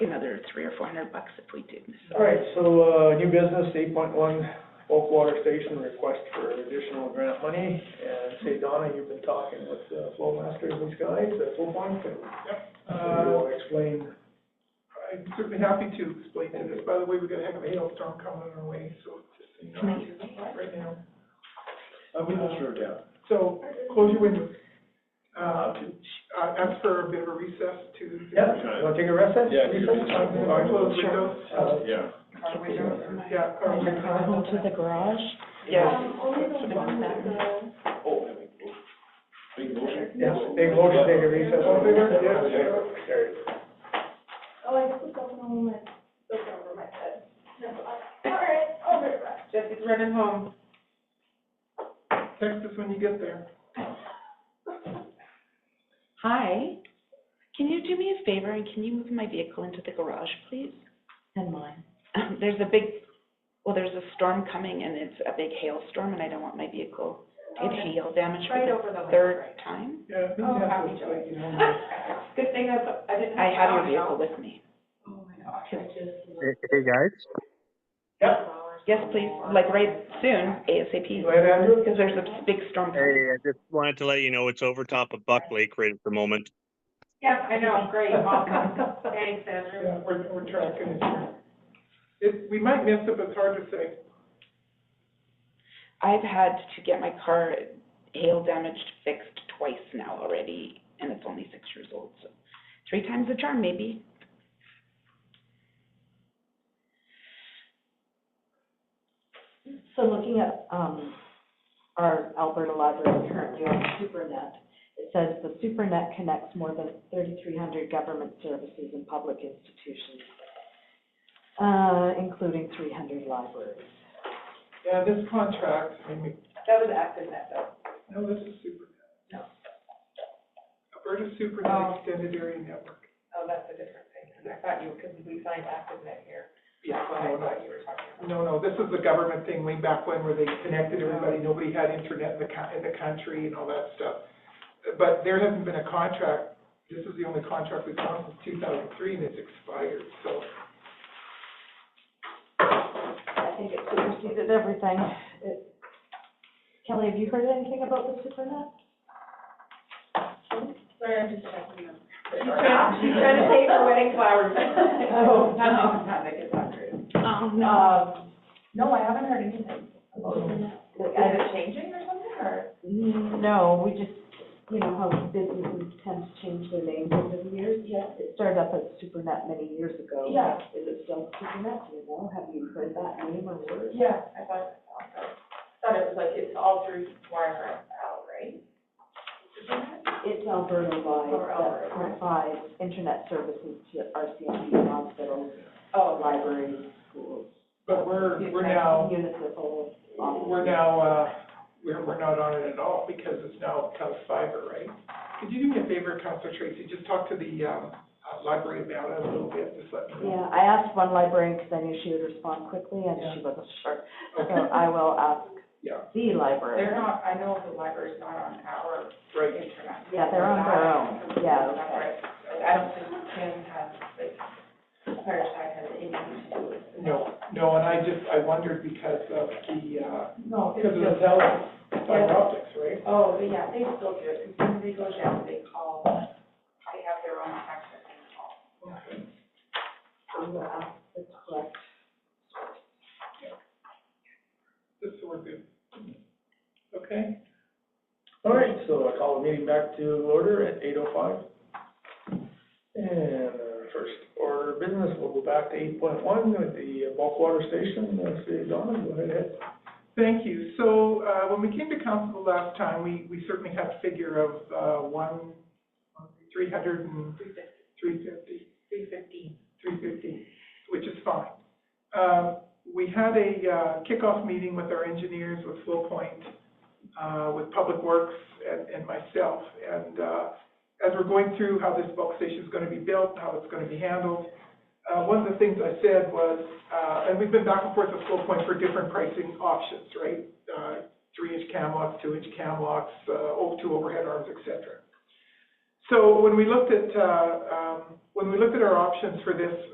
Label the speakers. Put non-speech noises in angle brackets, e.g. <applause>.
Speaker 1: three or four hundred bucks if we do, so.
Speaker 2: All right, so, uh, new business, eight point one, Oak Water Station request for additional grant money. And say, Donna, you've been talking with uh, Flow Masters and these guys at Flow Point, and
Speaker 3: Uh,
Speaker 2: you'll explain.
Speaker 3: I'm certainly happy to explain to this, by the way, we're gonna have a hailstorm coming our way, so just so you know, right now.
Speaker 2: I
Speaker 3: wouldn't
Speaker 2: sure doubt.
Speaker 3: So, close your windows. Uh, to- uh, ask for a bit of a recess to.
Speaker 2: Yeah, wanna take a recess?
Speaker 4: Yeah,
Speaker 2: Recess?
Speaker 4: take a recess.
Speaker 3: Uh, Close windows,
Speaker 2: Uh,
Speaker 4: Yeah.
Speaker 3: yeah. or-
Speaker 1: the garage? Yeah.
Speaker 4: Big motion?
Speaker 2: Yes, big motion, take a recess. All in favor? Yes. Carried.
Speaker 5: Jesse's running home.
Speaker 3: Text us when you get there.
Speaker 1: Hi, can you do me a favor and can you move my vehicle into the garage, please? Um,
Speaker 5: And mine.
Speaker 1: There's a big, well, there's a storm coming and it's a big hailstorm and I don't want my vehicle to get hail damage for
Speaker 5: Right
Speaker 1: the
Speaker 5: over the. lake,
Speaker 1: third
Speaker 5: right.
Speaker 1: time.
Speaker 3: Yeah.
Speaker 5: Oh, happy joy.
Speaker 3: <laughs>
Speaker 5: <laughs> Good thing I, I didn't.
Speaker 1: I have your
Speaker 5: to
Speaker 1: vehicle with me.
Speaker 5: Oh my gosh, I just.
Speaker 6: Hey, hey, guys.
Speaker 1: Yes, please, like right soon, ASAP,
Speaker 2: Go ahead, Andrew.
Speaker 1: because there's a big storm coming.
Speaker 6: Hey, I just wanted to let you know it's over top of Buck Lake right at the moment.
Speaker 5: Yeah, I know, great, awesome. Thanks, Andrew.
Speaker 3: Yeah, we're, we're tracking it here. It, we might miss it, but it's hard to say.
Speaker 1: I've had to get my car hail damaged fixed twice now already, and it's only six years old, so three times the charm, maybe.
Speaker 7: So looking at, um, our Alberta Library currently on SuperNet, it says the SuperNet connects more than thirty-three hundred government services and public institutions, uh, including three hundred libraries.
Speaker 3: Yeah, this contract, I mean,
Speaker 5: That was after that though.
Speaker 3: No, this is super.
Speaker 5: No.
Speaker 3: Alberta Super
Speaker 5: Oh.
Speaker 3: Net Extended Area Network.
Speaker 5: Oh, that's a different thing, 'cause I thought you, because we signed active net here.
Speaker 3: Yeah.
Speaker 5: That's what I thought you were talking about. Oh.
Speaker 3: No, no, this is the government thing way back when where they connected everybody, nobody had internet in the co- in the country and all that stuff. But there hasn't been a contract, this is the only contract we've done since two thousand three and it's expired, so.
Speaker 7: I think it superseded everything. It- Kelly, have you heard anything about the SuperNet?
Speaker 5: Sorry, I'm just checking them. <laughs> She's trying, she's <laughs> trying to save her wedding
Speaker 1: <laughs>
Speaker 5: flowers. <laughs> Oh, no. Not make it sound rude.
Speaker 1: Oh,
Speaker 5: Um, no, I haven't heard anything. Is
Speaker 7: I-
Speaker 5: it changing or something, or?
Speaker 7: No, we just, you know, how businesses tend to change their names over the years.
Speaker 5: Yeah.
Speaker 7: It started up as SuperNet many years ago.
Speaker 5: Yeah.
Speaker 7: Is it still SuperNet, do you know? Have you heard that name or word?
Speaker 5: Yeah, I thought, I thought it was like, it's all through Wire out, right?
Speaker 7: It's Alberta
Speaker 5: Or
Speaker 7: wide
Speaker 5: Alberta.
Speaker 7: that provides internet services to RCMP hospitals,
Speaker 5: Oh,
Speaker 7: libraries, schools.
Speaker 3: But we're, we're
Speaker 7: and
Speaker 3: now,
Speaker 7: Municipal. offices.
Speaker 3: we're now, uh, we're, we're not on it at all because it's now Counts Fiber, right? Could you do me a favor, Counselor Tracy, just talk to the, um, uh, library about it a little bit, just let me know.
Speaker 7: Yeah, I asked one librarian because I knew she would respond quickly and
Speaker 3: Yeah.
Speaker 7: she wasn't sure. So
Speaker 3: Okay.
Speaker 7: I will ask
Speaker 3: Yeah,
Speaker 7: the
Speaker 5: They're
Speaker 7: librarian.
Speaker 5: not, I know the library's not on our
Speaker 3: right.
Speaker 5: internet.
Speaker 7: Yeah, they're on their own. Yeah,
Speaker 5: That's
Speaker 7: okay.
Speaker 5: right. I don't think Kim has, like, Fireside has anything to do with.
Speaker 3: No, no, and I just, I wondered because of the, uh,
Speaker 5: No,
Speaker 3: because of the Zeller fiber
Speaker 5: Yeah.
Speaker 3: optics, right?
Speaker 5: Oh, but yeah, they still do it, because when they go down, they call, they have their own access and call.
Speaker 7: I will ask the correct
Speaker 3: Just so we're good. Okay?
Speaker 2: All right, so I call the meeting back to order at eight oh five. And uh, first order of business, we'll go back to eight point one with the bulk water station, uh, City of Dawn, go ahead.
Speaker 3: Thank you. So, uh, when we came to council the last time, we, we certainly had a figure of, uh, one, three hundred and. Three fifty. Three fifty. Three fifty, which is fine. Um, we had a, uh, kickoff meeting with our engineers, with Flow Point, uh, with Public Works and, and myself. And, uh, as we're going through how this bulk station's gonna be built, how it's gonna be handled, uh, one of the things I said was, uh, and we've been back and forth with Flow Point for different pricing options, right? Uh, three-inch cam locks, two-inch cam locks, uh, over two overhead arms, et cetera. So when we looked at, uh, um, when we looked at our options for this,